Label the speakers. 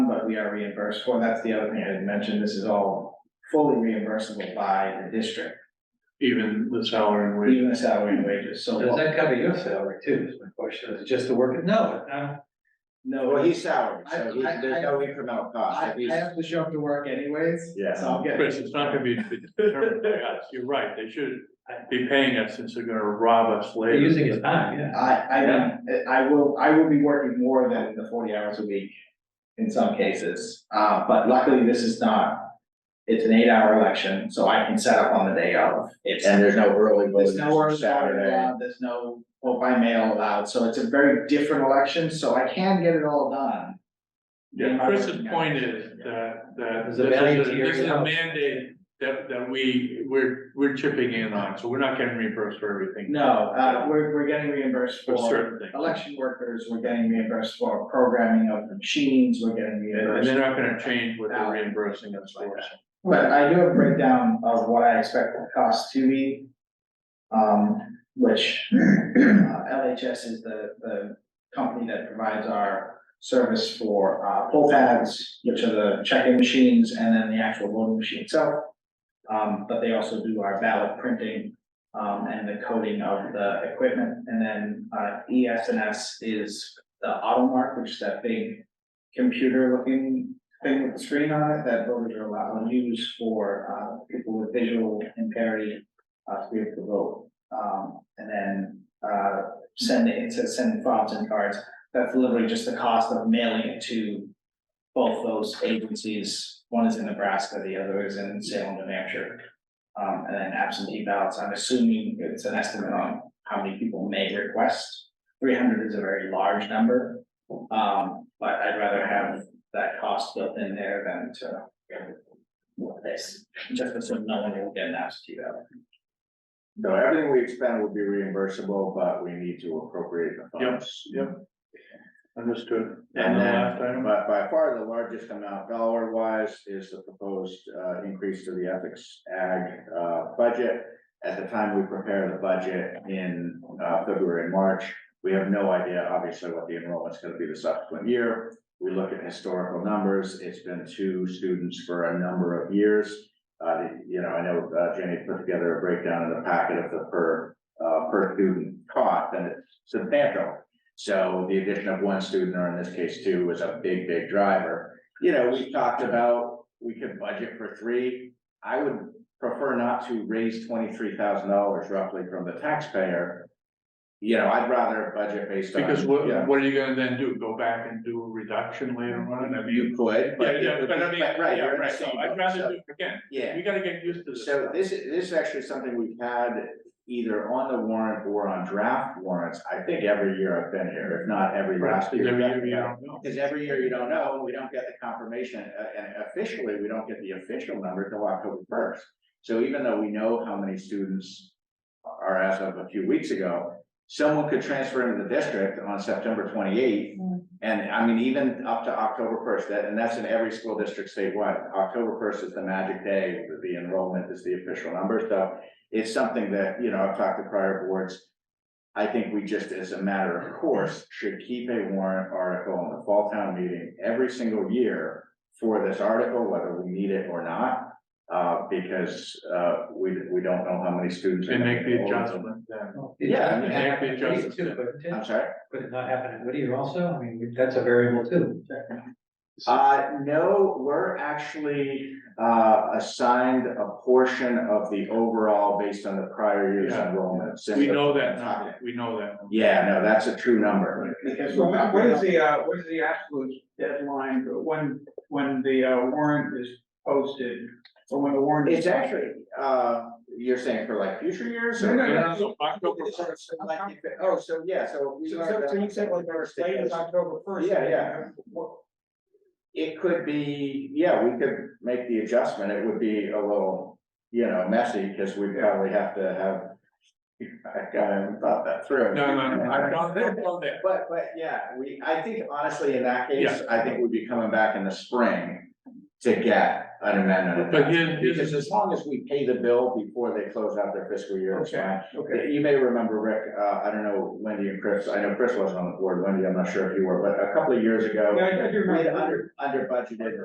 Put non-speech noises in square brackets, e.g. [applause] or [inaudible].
Speaker 1: we are reimbursed for, that's the other thing I didn't mention, this is all fully reimbursable by the district,
Speaker 2: even the salary and wage.
Speaker 1: even the salary and wages, so.
Speaker 3: Does that cover your salary too, is my question, is it just the work? No, um,
Speaker 1: No,
Speaker 4: Well, he's salaried,
Speaker 1: I-
Speaker 4: so he-
Speaker 1: I-
Speaker 4: there's no incremental cost,
Speaker 1: I,
Speaker 4: if
Speaker 1: I
Speaker 4: he's,
Speaker 1: have to show up to work anyways,
Speaker 4: Yeah.
Speaker 1: so I'll get.
Speaker 2: Chris, it's not gonna be [laughs] determined by us, you're right, they should be paying us since they're gonna rob us
Speaker 3: they're
Speaker 2: later.
Speaker 3: using his time, yeah.
Speaker 1: I, I, I will, I will be working more than the forty hours a week in some cases, uh, but luckily this is not. It's an eight-hour election, so I can set up on the day of. It's,
Speaker 4: and there's no early
Speaker 1: there's
Speaker 4: voting
Speaker 1: no uh,
Speaker 4: on
Speaker 1: orders
Speaker 4: Saturday.
Speaker 1: allowed, there's no vote by mail allowed, so it's a very different election, so I can get it all done.
Speaker 2: Yeah, Chris's point is that, that
Speaker 3: There's
Speaker 2: this
Speaker 3: a value
Speaker 2: is,
Speaker 3: to
Speaker 2: a-
Speaker 3: your
Speaker 2: this is a
Speaker 3: house.
Speaker 2: mandate that, that we, we're, we're chipping in on, so we're not getting reimbursed for everything.
Speaker 1: No, uh, we're, we're getting reimbursed
Speaker 2: For
Speaker 1: for
Speaker 2: certain things,
Speaker 1: election workers, we're getting reimbursed for programming of the machines, we're getting reimbursed.
Speaker 2: and they're not gonna change what they're reimbursing us for.
Speaker 1: But I do have a breakdown of what I expect the cost to be. Um, which, uh, LHS is the, the company that provides our service for, uh, poll pads, which are the check-in machines, and then the actual voting machine itself. Um, but they also do our ballot printing, um, and the coding of the equipment, and then, uh, ES&S is the AutoMark, which is that big computer-looking thing with the screen on it that voters are allowed to use for uh people with visual impairment uh to be able to vote. Um and then uh sending, it says send files and cards, that's literally just the cost of mailing it to both those agencies, one is in Nebraska, the other is in Salem, New Hampshire. Um and then absentee ballots, I'm assuming it's an estimate on how many people may request. Three hundred is a very large number, um but I'd rather have that cost built in there than to. What this, just so no one will get an absentee ballot.
Speaker 4: So everything we expend will be reimbursable, but we need to appropriate the funds.
Speaker 2: Yep, understood.
Speaker 4: And
Speaker 2: the
Speaker 4: then-
Speaker 2: last item?
Speaker 4: But by far the largest amount dollar wise is the proposed uh increase to the ethics ag uh budget. At the time we prepare the budget in uh February and March, we have no idea obviously what the enrollment's gonna be the subsequent year. We look at historical numbers, it's been two students for a number of years. Uh, you know, I know uh, Jenny put together a breakdown in the packet of the per uh per student cost and it's substantial. So the addition of one student, or in this case two, was a big, big driver. You know, we talked about, we could budget for three. I would prefer not to raise twenty-three thousand dollars roughly from the taxpayer. You know, I'd rather budget based on.
Speaker 2: Because what,
Speaker 4: Yeah.
Speaker 2: what are you gonna then do, go back and do a reduction later on, I mean.
Speaker 4: You could,
Speaker 2: Yeah,
Speaker 4: but. it
Speaker 2: yeah,
Speaker 4: would
Speaker 2: but I
Speaker 4: be-
Speaker 2: mean,
Speaker 4: right,
Speaker 2: yeah,
Speaker 4: you're in the
Speaker 2: right, so
Speaker 4: same
Speaker 2: I'd
Speaker 4: boat,
Speaker 2: rather
Speaker 4: so-
Speaker 2: do, again,
Speaker 4: Yeah,
Speaker 2: we gotta get used to this.
Speaker 4: So this is, this is actually something we've had either on the warrant or on draft warrants, I think every year I've been here, if not every last
Speaker 2: Because
Speaker 4: year.
Speaker 2: every year you
Speaker 4: Yeah.
Speaker 2: don't know.
Speaker 4: Because every year you don't know, we don't get the confirmation, uh, and officially, we don't get the official number till October first. So even though we know how many students are as of a few weeks ago, someone could transfer into the district on September twenty-eighth. And I mean, even up to October first, that, and that's in every school district statewide, October first is the magic day, the enrollment is the official number, so it's something that, you know, I've talked to prior boards. I think we just, as a matter of course, should keep a warrant article in the fall town meeting every single year for this article, whether we need it or not. Uh, because, uh, we, we don't know how many students. are
Speaker 2: And make the
Speaker 4: gonna enroll.
Speaker 2: adjustment then.
Speaker 4: Yeah, I
Speaker 3: It
Speaker 4: mean,
Speaker 3: happened in
Speaker 2: they have to adjust
Speaker 3: Whittier
Speaker 2: it.
Speaker 3: too, couldn't it?
Speaker 4: I'm sorry?
Speaker 3: Could it not happen in Whittier also? I mean, that's a variable too.
Speaker 4: Uh, no, we're actually, uh, assigned a portion of the overall based on the prior year's
Speaker 2: Yeah.
Speaker 4: enrollment. since
Speaker 2: We
Speaker 4: the-
Speaker 2: know that now, we know that.
Speaker 4: Yeah, no, that's a true number.
Speaker 1: Because
Speaker 5: So what what is the, uh, what is the absolute deadline, for when, when the uh, warrant is posted, or when the warrant is?
Speaker 4: It's actually, uh, you're saying for like future years
Speaker 5: No,
Speaker 4: or?
Speaker 5: no, no.
Speaker 2: Yeah, so October
Speaker 4: So,
Speaker 2: first,
Speaker 4: so like if it- Oh, so, yeah, so. we
Speaker 5: So,
Speaker 4: learned
Speaker 5: so so you
Speaker 4: that
Speaker 5: said like our
Speaker 4: first
Speaker 5: slate is
Speaker 4: because
Speaker 5: October first.
Speaker 4: Yeah, yeah. It could be, yeah, we could make the adjustment, it would be a little, you know, messy, because we probably have to have. I haven't thought that through.
Speaker 2: no, no, no, I don't, I don't know that.
Speaker 4: But, but, yeah, we, I think honestly, in that case, I think we'd be coming back in the spring to get an amendment.
Speaker 2: But here's- here's-
Speaker 4: Because as long as we pay the bill before they close out their fiscal year, it's fine.
Speaker 5: okay.
Speaker 4: Yeah, You may remember, Rick, uh, I don't know, Wendy and Chris, I know Chris wasn't on the board, Wendy, I'm not sure if you were, but a couple of years ago.
Speaker 5: Yeah, I- I do remember.
Speaker 4: We had under, under budgeted